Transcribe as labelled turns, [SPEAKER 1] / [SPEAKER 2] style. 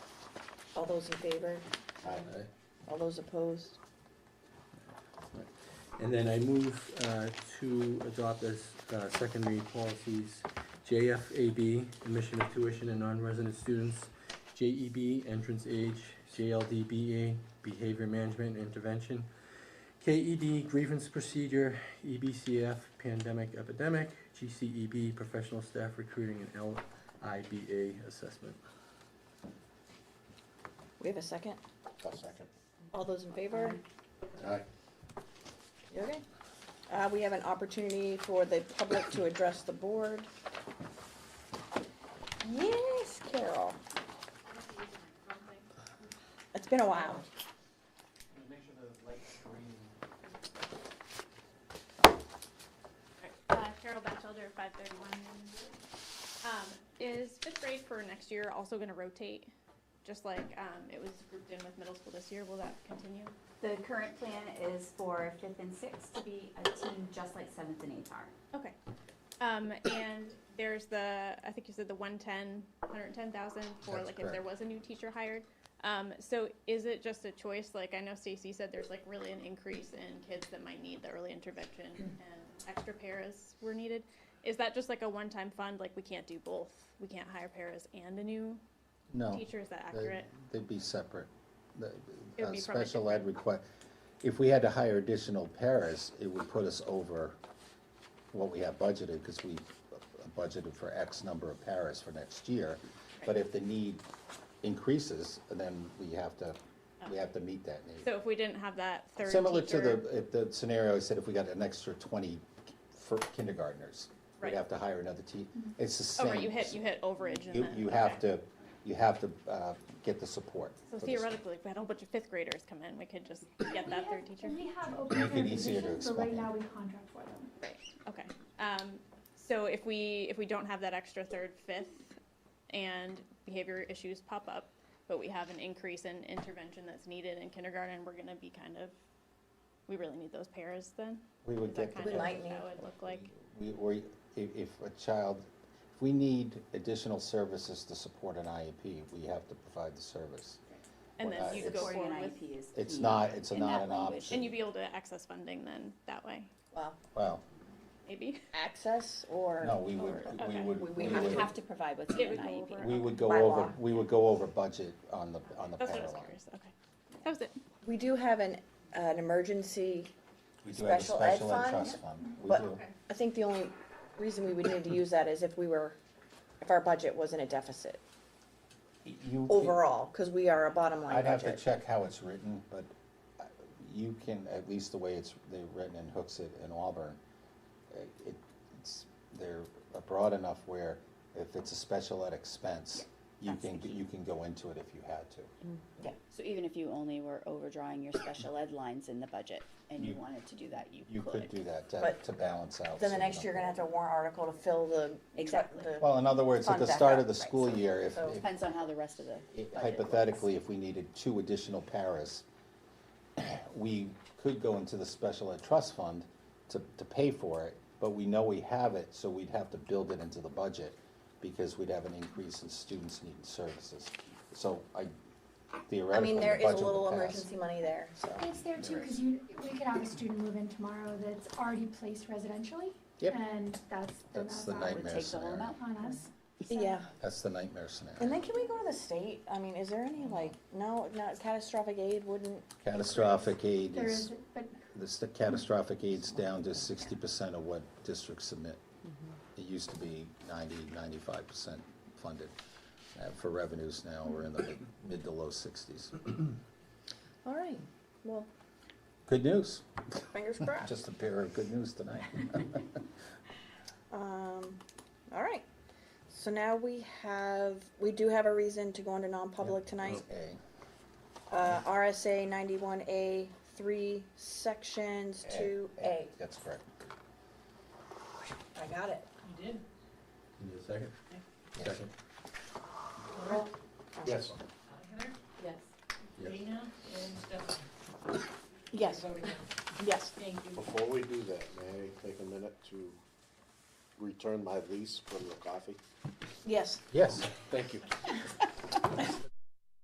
[SPEAKER 1] All those in favor?
[SPEAKER 2] Aye.
[SPEAKER 1] All those opposed?
[SPEAKER 2] And then I move uh, to adopt as uh, second read policies JFAB, admission of tuition and non-resident students, JEB, entrance age, JLDBA, behavior management and intervention, KED, grievance procedure, E EBCF, pandemic epidemic, GCEB, professional staff recruiting, and LIBA assessment.
[SPEAKER 1] We have a second?
[SPEAKER 3] I'll second.
[SPEAKER 1] All those in favor?
[SPEAKER 3] Aye.
[SPEAKER 1] You Okay. Uh, we have an opportunity for the public to address the board. Yes, Carol. It's been a while.
[SPEAKER 4] Make sure the light's green.
[SPEAKER 5] Uh, Carol Batchelder, five thirty-one. Um, is fifth grade for next year also gonna rotate, just like, um, it was grouped in with middle school this year, will that continue?
[SPEAKER 6] The current plan is for fifth and sixth to be a team just like seventh and eighth are.
[SPEAKER 5] Okay, um, and there's the, I think you said the one-ten, hundred-and-ten thousand for
[SPEAKER 2] That's
[SPEAKER 5] like if there
[SPEAKER 2] correct.
[SPEAKER 5] was a new teacher hired. Um, so is it just a choice, like I know Stacy said there's like really an increase in kids that might need the early intervention and extra paras were needed. Is that just like a one-time fund, like we can't do both, we can't hire paras and a new
[SPEAKER 7] No,
[SPEAKER 5] teacher, is that
[SPEAKER 7] they-
[SPEAKER 5] accurate?
[SPEAKER 7] they'd be separate. The-
[SPEAKER 5] It would
[SPEAKER 7] uh,
[SPEAKER 5] be from a
[SPEAKER 7] Special ed require, if we had to hire additional paras, it would put us over what we have budgeted, because we budgeted for X number of paras for next year. But
[SPEAKER 5] Right.
[SPEAKER 7] if the need increases, then we have to, we have to meet that need.
[SPEAKER 5] Oh. So if we didn't have that third teacher.
[SPEAKER 7] Similar to the, if the scenario I said, if we got an extra twenty for kindergartners, we'd
[SPEAKER 5] Right.
[SPEAKER 7] have to hire another teacher. It's the same.
[SPEAKER 5] Oh, right, you hit, you hit overage and
[SPEAKER 7] You,
[SPEAKER 5] then.
[SPEAKER 7] you have
[SPEAKER 5] okay.
[SPEAKER 7] to, you have to uh, get the support.
[SPEAKER 5] So
[SPEAKER 7] for this.
[SPEAKER 5] theoretically, if we had a whole bunch of fifth graders come in, we could just get that third teacher.
[SPEAKER 8] We have
[SPEAKER 7] Make
[SPEAKER 8] open
[SPEAKER 7] it easier to
[SPEAKER 8] positions, but right
[SPEAKER 7] expand.
[SPEAKER 8] now we contract for them.
[SPEAKER 5] Right, okay. Um, so if we, if we don't have that extra third, fifth, and behavior issues pop up, but we have an increase in intervention that's needed in kindergarten, we're gonna be kind of, we really need those pairs then?
[SPEAKER 7] We would
[SPEAKER 5] Is that
[SPEAKER 7] get,
[SPEAKER 5] kind of
[SPEAKER 1] We
[SPEAKER 5] what
[SPEAKER 1] might
[SPEAKER 5] that would look like?
[SPEAKER 7] we, or if, if a child, if we need additional services to support an IEP, we have to provide the service.
[SPEAKER 5] And
[SPEAKER 7] Well,
[SPEAKER 5] then
[SPEAKER 7] uh,
[SPEAKER 5] you
[SPEAKER 7] it's-
[SPEAKER 5] go
[SPEAKER 6] Supporting
[SPEAKER 5] forward
[SPEAKER 6] an
[SPEAKER 5] with,
[SPEAKER 6] IEP is
[SPEAKER 7] It's
[SPEAKER 1] Mm-hmm.
[SPEAKER 6] key
[SPEAKER 7] not, it's
[SPEAKER 6] in
[SPEAKER 7] not
[SPEAKER 6] that
[SPEAKER 7] an
[SPEAKER 6] language.
[SPEAKER 5] and
[SPEAKER 7] option.
[SPEAKER 5] you'd be able to access funding then that way,
[SPEAKER 1] Well,
[SPEAKER 7] Well,
[SPEAKER 5] maybe?
[SPEAKER 1] access or?
[SPEAKER 7] no, we would,
[SPEAKER 5] or-
[SPEAKER 7] we
[SPEAKER 5] okay.
[SPEAKER 7] would,
[SPEAKER 1] We-
[SPEAKER 7] we
[SPEAKER 1] have
[SPEAKER 7] would,
[SPEAKER 6] to provide what's
[SPEAKER 5] It would go over.
[SPEAKER 7] we would go
[SPEAKER 1] By
[SPEAKER 7] over,
[SPEAKER 1] law.
[SPEAKER 7] we would go over budget on the, on the
[SPEAKER 5] That's what I
[SPEAKER 7] para
[SPEAKER 5] was
[SPEAKER 7] line.
[SPEAKER 5] curious, okay. That was it.
[SPEAKER 1] We do have an, an emergency,
[SPEAKER 7] We do have a
[SPEAKER 1] Special ed
[SPEAKER 7] special ed
[SPEAKER 1] fund?
[SPEAKER 7] trust fund, we
[SPEAKER 1] But-
[SPEAKER 7] do.
[SPEAKER 1] I think the only reason we would need to use that is if we were, if our budget was in a deficit
[SPEAKER 7] You-
[SPEAKER 1] overall, because we are a bottom line
[SPEAKER 7] I'd have
[SPEAKER 1] budget.
[SPEAKER 7] to check how it's written, but uh, you can, at least the way it's, they're written in Hooksett and Auburn, uh, it, it's, they're broad enough where if it's a special ed expense, you
[SPEAKER 6] that's
[SPEAKER 7] can,
[SPEAKER 6] the key.
[SPEAKER 7] you can go into it if you had to.
[SPEAKER 9] So even if you only were overdrawing your special ed lines in the budget and you
[SPEAKER 7] You-
[SPEAKER 9] wanted to do that, you could.
[SPEAKER 7] You could do that to,
[SPEAKER 1] But
[SPEAKER 7] to balance out.
[SPEAKER 1] Then the
[SPEAKER 7] some
[SPEAKER 1] next year, you're gonna have
[SPEAKER 7] number.
[SPEAKER 1] to warrant article to fill the.
[SPEAKER 9] Exactly.
[SPEAKER 1] the-
[SPEAKER 7] Well, in other words, at
[SPEAKER 1] fund
[SPEAKER 7] the
[SPEAKER 1] back
[SPEAKER 7] start
[SPEAKER 1] up,
[SPEAKER 7] of the
[SPEAKER 1] right,
[SPEAKER 7] school
[SPEAKER 1] so-
[SPEAKER 7] year, if-
[SPEAKER 1] so-
[SPEAKER 7] if
[SPEAKER 9] Depends on how the rest of the.
[SPEAKER 7] It-
[SPEAKER 9] budget
[SPEAKER 7] Hypothetically,
[SPEAKER 9] looks.
[SPEAKER 7] if we needed two additional paras, we could go into the special ed trust fund to, to pay for it, but we know we have it, so we'd have to build it into the budget because we'd have an increase in students needing services. So I
[SPEAKER 1] I
[SPEAKER 7] theoretically,
[SPEAKER 1] mean,
[SPEAKER 7] the
[SPEAKER 1] there
[SPEAKER 7] budget
[SPEAKER 1] is a little
[SPEAKER 7] would pass.
[SPEAKER 1] emergency money there, so.
[SPEAKER 8] It's there too, because you, we could have a student move in tomorrow that's already placed residentially.
[SPEAKER 7] Yep.
[SPEAKER 8] And that's, then
[SPEAKER 7] That's
[SPEAKER 8] that's
[SPEAKER 7] the
[SPEAKER 8] on-
[SPEAKER 9] Would
[SPEAKER 7] nightmare
[SPEAKER 9] take the whole
[SPEAKER 7] scenario.
[SPEAKER 9] amount.
[SPEAKER 8] on us. So-
[SPEAKER 1] Yeah,
[SPEAKER 7] That's the nightmare
[SPEAKER 1] and
[SPEAKER 7] scenario.
[SPEAKER 1] then can we go to the state? I mean, is there any like, no, not catastrophic aid wouldn't,
[SPEAKER 7] Catastrophic aid
[SPEAKER 8] There is,
[SPEAKER 7] is,
[SPEAKER 8] but
[SPEAKER 7] this- the catastrophic aid's down to sixty percent of what districts submit.
[SPEAKER 1] Mm-hmm.
[SPEAKER 7] It used to be 90, 95 percent funded. Uh, For revenues now, we're in the mid- mid to low sixties.
[SPEAKER 1] all right, well,
[SPEAKER 7] Good news,
[SPEAKER 1] fingers crossed.
[SPEAKER 7] just a pair of good news tonight.
[SPEAKER 1] Um, all right, so now we have, we do have a reason to go into non-public tonight.
[SPEAKER 7] Okay,
[SPEAKER 1] Uh, RSA ninety-one A, three sections,
[SPEAKER 7] A.
[SPEAKER 1] two A.
[SPEAKER 7] that's correct.
[SPEAKER 1] I got it.
[SPEAKER 4] You did?
[SPEAKER 2] Need a second?
[SPEAKER 7] Yes.
[SPEAKER 2] Second.
[SPEAKER 3] Yes.
[SPEAKER 4] Heather,
[SPEAKER 6] Yes.
[SPEAKER 2] Yes.
[SPEAKER 4] Dana, and Stephanie.
[SPEAKER 1] Yes,
[SPEAKER 4] Voting yes.
[SPEAKER 1] yes.
[SPEAKER 4] Thank you.
[SPEAKER 3] Before we do that, may I take a minute to return my lease from the coffee?
[SPEAKER 1] Yes.
[SPEAKER 7] Yes.
[SPEAKER 3] Thank you.